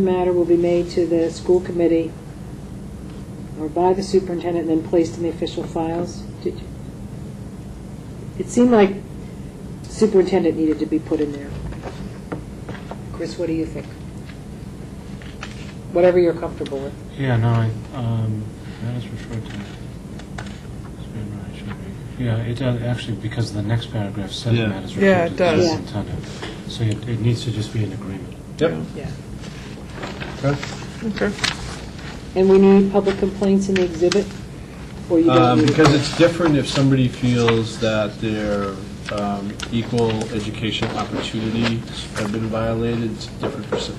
matter will be made to the school committee or by the superintendent and then placed in the official files? Did you- It seemed like superintendent needed to be put in there. Chris, what do you think? Whatever you're comfortable with. Yeah, no, I, um, that is referred to. It's been right, should be. Yeah, it does, actually, because the next paragraph says Yeah. that is Yeah, referred to it the does. Yeah. superintendent. So it, it needs to just be an agreement. Yep. Yeah. Okay. And we need public complaints in the exhibit? Or you don't Um, need it? Because it's different if somebody feels that their um, equal education opportunities have been violated, it's different, proce-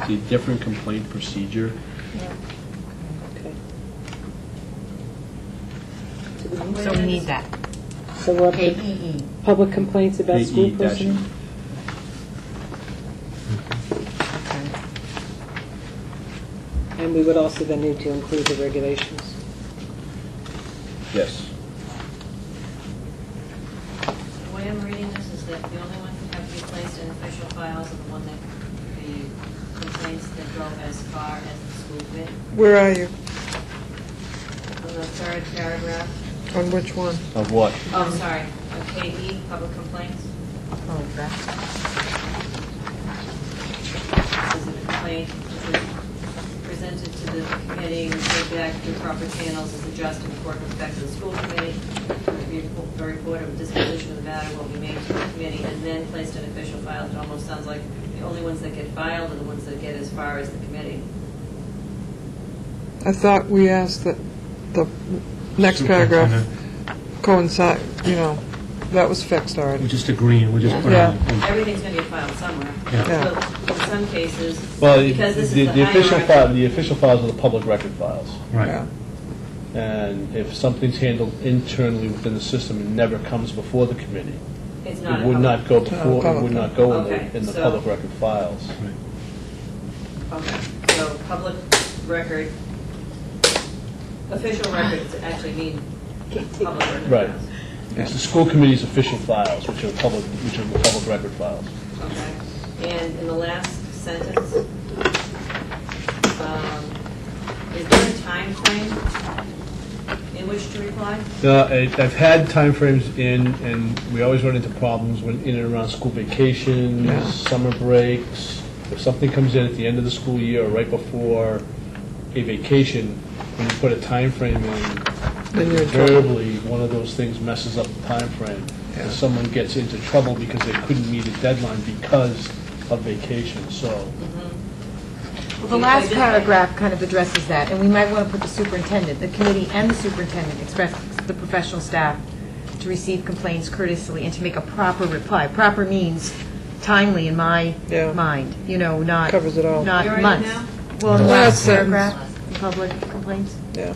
it's a different complaint procedure. Okay. So we need that. E So we're up to KEE. public complaints about school AE dash E. personnel? And we would also then need to include the regulations. Yes. The way I'm reading this is that the only ones that have to be placed in official files are the one that, the complaints that go as far as the school bid. Where are you? On the third paragraph, On which one? Of what? Um, oh, sorry, of KE, public complaints, Oh, that's, is a complaint which is presented to the committee, referred back through proper channels, is addressed in accordance with respect to the school committee. The report of disposition of the matter will be made to the committee and then placed in official files. It almost sounds like the only ones that get filed are the ones that get as far as the committee. I thought we asked that the next paragraph Superintendent. coincide, you know, that was fixed We're already. just agreeing, we're just putting Yeah. Hmm. it Everything's going to get filed somewhere. Yeah. Yeah. But in some cases, Well, the because this is the the official hierarchy- file, the official files are the public record files. in, right. Yeah. And if something's handled internally within the system and never comes before the committee, It's not. it a would public- not go before, it would not go in Okay, the, in the so- public record files. Right. Okay, so public record, official records actually mean public record. Right. files. It's the school committee's official files, which are public, which are the public record files. Okay, and in the last sentence, um, is there a time frame in which to reply? No, I- uh, I've had timeframes in, and we always run into problems when in and around school vacations, summer breaks. If something comes in at the end of the school year or right before a vacation, when you put a time frame in, Then you're in trouble. invariably, one of those things messes up the timeframe. Yeah. And someone gets into trouble because they couldn't meet a deadline because of vacation, so. well, the last paragraph kind of addresses that, and we might want to put the superintendent, the committee and the superintendent express the professional staff to receive complaints courteously and to make a proper reply. Proper means timely in my Yeah. mind, you know, not. Covers it all. Not You're in it months. now? Well, in the Yeah. last That's it. paragraph, public complaints, Yeah.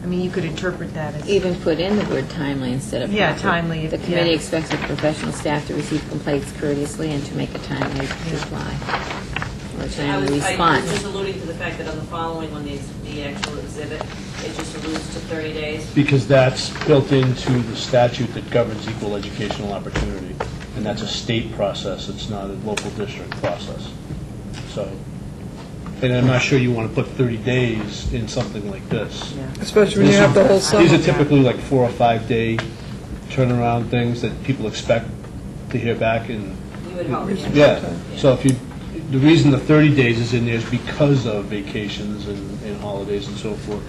I mean, you could interpret that as. Even put in the word timely instead of. Yeah, proper. timely, The yeah. committee expects the professional staff to receive complaints courteously and to make a timely reply or I was- timely I was just response. alluding to the fact that on the following one, the ex- the actual exhibit, it just alludes to 30 days. Because that's built into the statute that governs equal educational opportunity, and that's a state process, it's not a local district process. So, and I'm not sure you want to put 30 days in something like this. Especially when you have the whole These are summer. typically like four or five-day turnaround things that people expect to hear back in, You would hope, yeah. yeah. So if you, the reason the 30 days is in there is because of vacations and and holidays and so forth,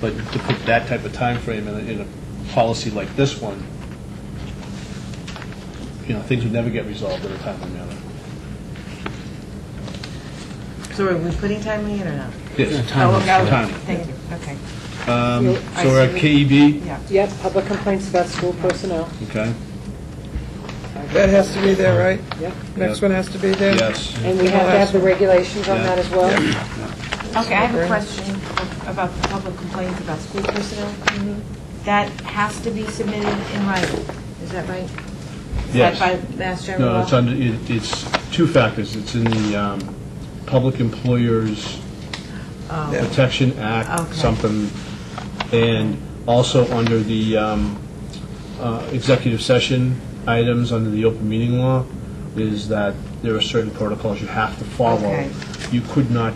but to put that type of timeframe in a, in a policy like this one, you know, things would never get resolved in a timely manner. So are we putting timely in or not? Yes, Time Oh, is okay. short. timely. Thank you, okay. Um, I So we're at KEB, Yeah. Yep, public complaints about school personnel. okay, That has to be there, right? Yep. Next one has to be there? yes. And we have to have the regulations on that as well? Okay, I have a question about the public complaints about school personnel. That has to be submitted in writing, is that right? Is Yes. that by Mass General No, law? it's under, it- it's two factors. It's in the um, Public Employers Protection Act, Oh. Okay. something, and also under the um, uh, executive session items under the open meeting law, is that there are certain protocols you have to follow Okay. you could not